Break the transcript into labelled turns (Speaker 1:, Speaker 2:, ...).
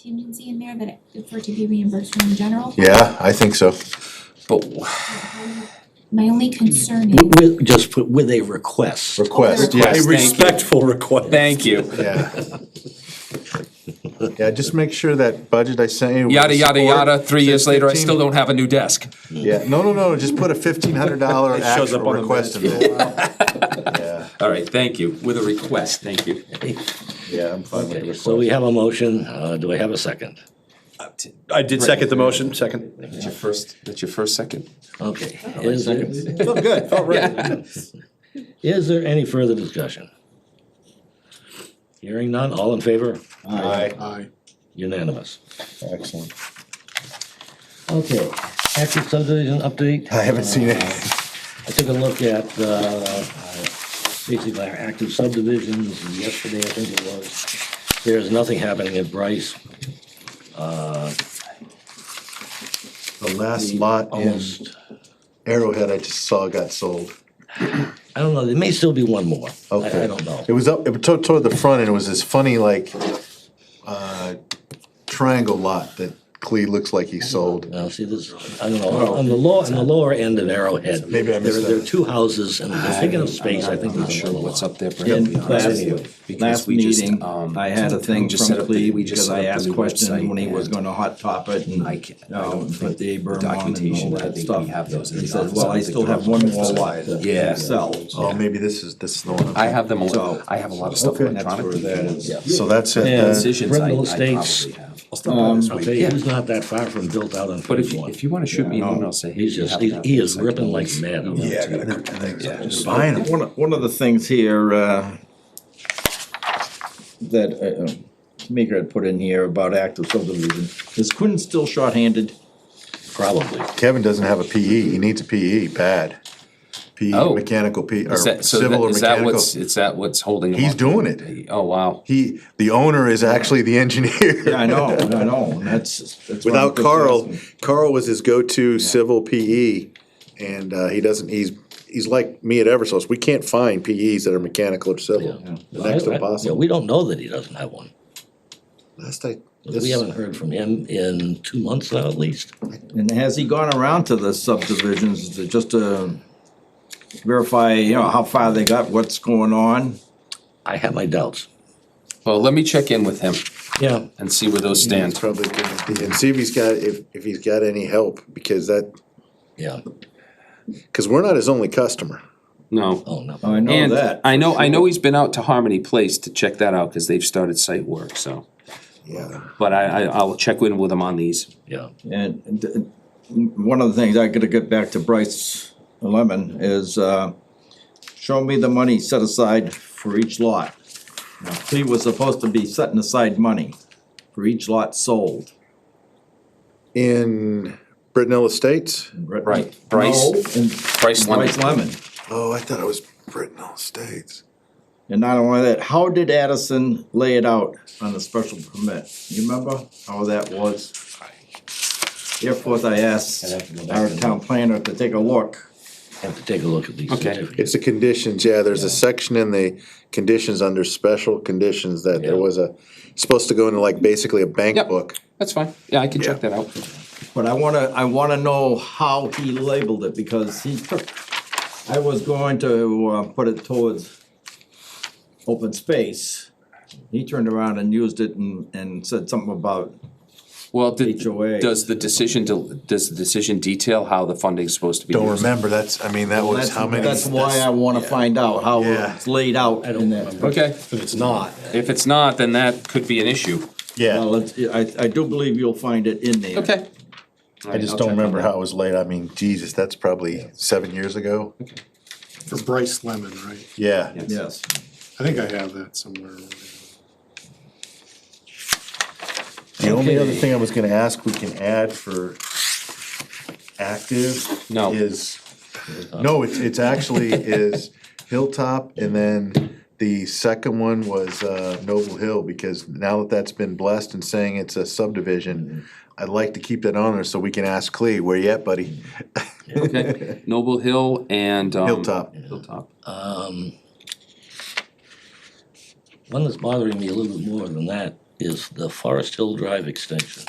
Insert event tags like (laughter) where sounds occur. Speaker 1: contingency in there that it for it to be reimbursed from the general?
Speaker 2: Yeah, I think so.
Speaker 3: But
Speaker 1: My only concern is,
Speaker 4: With, with- just put with a request.
Speaker 2: Request, yeah,
Speaker 3: Request.
Speaker 5: A
Speaker 3: Yes, thank you.
Speaker 5: respectful request.
Speaker 3: thank you.
Speaker 2: yeah. Yeah, just make sure that budget I sent you. with
Speaker 3: Yada, yada,
Speaker 2: support
Speaker 3: yada. Three years
Speaker 2: says
Speaker 3: later, I
Speaker 2: 15
Speaker 3: still don't have a new desk.
Speaker 2: Yeah, no, no, no, just put a fifteen hundred dollar
Speaker 5: It shows
Speaker 2: actual
Speaker 5: up on the
Speaker 2: request in there. Yeah,
Speaker 3: All right, thank you. With a request, thank you.
Speaker 2: yeah, I'm fine with the
Speaker 4: Okay,
Speaker 2: request.
Speaker 4: so we have a motion, uh, do I have a second?
Speaker 5: I did second the motion, second.
Speaker 3: That's your first, that's your first second.
Speaker 4: Okay, is there,
Speaker 5: Felt good, felt right.
Speaker 4: (laughs) is there any further discussion? Hearing none, all in favor,
Speaker 2: Aye,
Speaker 4: unanimous.
Speaker 2: excellent.
Speaker 4: Okay, active subdivision update.
Speaker 2: I haven't seen it.
Speaker 4: I took a look at, uh, uh, basically our active subdivisions and yesterday, I think it was. There's nothing happening at Bryce.
Speaker 2: The last lot in
Speaker 4: Almost,
Speaker 2: Arrowhead I just saw got sold.
Speaker 4: I don't know, there may still be one more. I,
Speaker 2: Okay.
Speaker 4: I don't know.
Speaker 2: It was up, it was toward, toward the front and it was this funny like, uh, triangle lot that Clee looks like he sold.
Speaker 4: Now, see, this, I don't know, on the low, on the lower end of Arrowhead.
Speaker 2: Maybe I
Speaker 4: There
Speaker 2: missed
Speaker 4: are, there are
Speaker 2: that.
Speaker 4: two houses, and they're taking up space, I think.
Speaker 3: I'm not
Speaker 4: there's
Speaker 3: sure
Speaker 4: another
Speaker 3: what's
Speaker 4: lot.
Speaker 3: up there, Brad,
Speaker 4: Yeah,
Speaker 3: to be honest with
Speaker 4: last-
Speaker 3: you. because
Speaker 6: Last
Speaker 3: we just,
Speaker 6: meeting,
Speaker 3: um,
Speaker 6: I had a thing
Speaker 3: just
Speaker 6: from
Speaker 3: set up the-
Speaker 6: Cleve
Speaker 3: we just
Speaker 6: because
Speaker 3: set
Speaker 6: I
Speaker 3: up the
Speaker 6: asked
Speaker 3: new
Speaker 6: questions
Speaker 3: website
Speaker 6: when he was
Speaker 3: and
Speaker 6: gonna hot top it and
Speaker 3: I
Speaker 6: like,
Speaker 3: can't- I
Speaker 6: uh,
Speaker 3: don't
Speaker 6: put
Speaker 3: think
Speaker 6: the
Speaker 3: the
Speaker 6: berm on and
Speaker 3: documentation,
Speaker 6: all
Speaker 3: I
Speaker 6: that
Speaker 3: think
Speaker 6: stuff.
Speaker 3: we have those in
Speaker 6: He
Speaker 3: the
Speaker 6: says,
Speaker 3: office.
Speaker 6: well,
Speaker 3: I
Speaker 6: I
Speaker 3: don't
Speaker 6: still
Speaker 3: think
Speaker 6: have
Speaker 3: they're
Speaker 6: one
Speaker 3: on
Speaker 6: more lot
Speaker 3: Yeah.
Speaker 6: to sell.
Speaker 2: Oh, maybe this is, this is the one. I'm-
Speaker 3: I have them, all.
Speaker 6: So-
Speaker 3: I have a lot of stuff
Speaker 2: Okay.
Speaker 3: electronically.
Speaker 6: Yeah.
Speaker 2: So that's it.
Speaker 4: Yeah.
Speaker 2: then.
Speaker 3: Decisions I I
Speaker 4: Brindle
Speaker 3: probably
Speaker 4: Estates.
Speaker 3: have. Um,
Speaker 4: I'll tell you, he's not that far from built out on
Speaker 3: But if,
Speaker 4: phase
Speaker 3: you-
Speaker 4: one.
Speaker 3: if you wanna shoot me an email, say, hey,
Speaker 4: He's
Speaker 3: you
Speaker 4: just,
Speaker 3: have to
Speaker 4: he
Speaker 3: have
Speaker 4: he
Speaker 3: this,
Speaker 4: is
Speaker 3: I can
Speaker 4: ripping like
Speaker 3: always-
Speaker 4: mad.
Speaker 2: Yeah, I gotta come back. Just buying
Speaker 6: Fine.
Speaker 2: them.
Speaker 6: One, of- one of the things here, uh, that, uh, um, Maker had put in here about active subdivision, is Quinn still shorthanded?
Speaker 4: Probably.
Speaker 2: Kevin doesn't have a PE, he needs a PE, bad. PE,
Speaker 3: Oh.
Speaker 2: mechanical PE, or
Speaker 3: Is that, so
Speaker 2: civil
Speaker 3: that,
Speaker 2: or
Speaker 3: is that
Speaker 2: mechanical.
Speaker 3: what's, is that what's holding him
Speaker 2: He's
Speaker 3: up?
Speaker 2: doing it.
Speaker 3: Oh, wow.
Speaker 2: He, the owner is actually the
Speaker 6: Yeah,
Speaker 2: engineer.
Speaker 6: I know, I know, and that's, that's. what I'm
Speaker 2: (laughs) Without
Speaker 6: just
Speaker 2: Carl,
Speaker 6: asking.
Speaker 2: Carl was his go-to civil PE, and, uh, he doesn't, he's, he's like me at Eversource, we can't find PEs that are mechanical or civil. The next
Speaker 4: I- I-
Speaker 2: to
Speaker 4: yeah,
Speaker 2: impossible.
Speaker 4: We don't know that he doesn't have one.
Speaker 2: Last I,
Speaker 4: We haven't heard from him in two months now at least.
Speaker 6: And has he gone around to the subdivisions to just to verify, you know, how far they got, what's going on?
Speaker 4: I have my doubts.
Speaker 3: Well, let me check in with him
Speaker 4: Yeah,
Speaker 3: and see where those
Speaker 2: it's
Speaker 3: stand.
Speaker 2: probably, good. and see if he's got, if, if he's got any help, because that,
Speaker 4: yeah.
Speaker 2: cause we're not his only customer.
Speaker 3: No.
Speaker 4: Oh, no.
Speaker 6: I know
Speaker 3: And
Speaker 6: that.
Speaker 3: I know, I know he's been out to Harmony Place to check that out, cause they've started site work, so.
Speaker 2: Yeah.
Speaker 3: But I, I, I'll check in with him on these.
Speaker 4: Yeah.
Speaker 6: And and one of the things I gotta get back to Bryce Lemon is, uh, show me the money set aside for each lot. Now, he was supposed to be setting aside money for each lot sold.
Speaker 2: In Brittenell Estates?
Speaker 3: Right, Bryce-
Speaker 6: No, in
Speaker 3: Bryce Lemon.
Speaker 6: Bryce Lemon.
Speaker 2: Oh, I thought it was Brittenell Estates.
Speaker 6: And not only that, how did Addison lay it out on the special permit? You remember how that was? Therefore, I asked our town planner to take a look.
Speaker 4: Have to take a look at these
Speaker 3: Okay.
Speaker 4: certificates.
Speaker 2: It's the conditions, yeah, there's a section in the conditions under special conditions that there
Speaker 4: Yeah.
Speaker 2: was a, it's supposed to go into like basically a bank
Speaker 3: Yep.
Speaker 2: book.
Speaker 3: That's fine. Yeah, I can check
Speaker 2: Yeah.
Speaker 3: that out.
Speaker 6: But I wanna, I wanna know how he labeled it, because he took, I was going to, uh, put it towards open space. He turned around and used it and, and said something about,
Speaker 3: Well, did,
Speaker 6: HOA.
Speaker 3: does the decision, del- does the decision detail how the funding's supposed to be
Speaker 2: Don't
Speaker 3: used?
Speaker 2: remember, that's, I mean, that was
Speaker 6: that's,
Speaker 2: how many.
Speaker 6: that's why I wanna find out how
Speaker 2: Yeah.
Speaker 6: it's laid out
Speaker 4: I don't
Speaker 6: in that.
Speaker 4: remember.
Speaker 3: Okay,
Speaker 2: If it's not.
Speaker 3: if it's not, then that could be an issue.
Speaker 2: Yeah,
Speaker 6: Well, it's, I, I do believe you'll find it in there.
Speaker 3: Okay.
Speaker 2: I just don't remember how it was laid, I mean, Jesus, that's probably seven years ago.
Speaker 5: For Bryce Lemon, right?
Speaker 2: Yeah,
Speaker 6: Yes,
Speaker 5: I think I have that somewhere.
Speaker 2: the only other
Speaker 4: Okay.
Speaker 2: thing I was gonna ask, we can add for active
Speaker 3: No.
Speaker 2: is, no, it's, it's actually is Hilltop and then the second one was, uh, Noble Hill, because now that that's been blessed and saying it's a subdivision, I'd like to keep that on there so we can ask Clee, where you at, buddy?
Speaker 3: Okay, Noble Hill and, um.
Speaker 2: Hilltop.
Speaker 3: Hilltop.
Speaker 4: Um, One that's bothering me a little bit more than that is the Forest Hill Drive extension.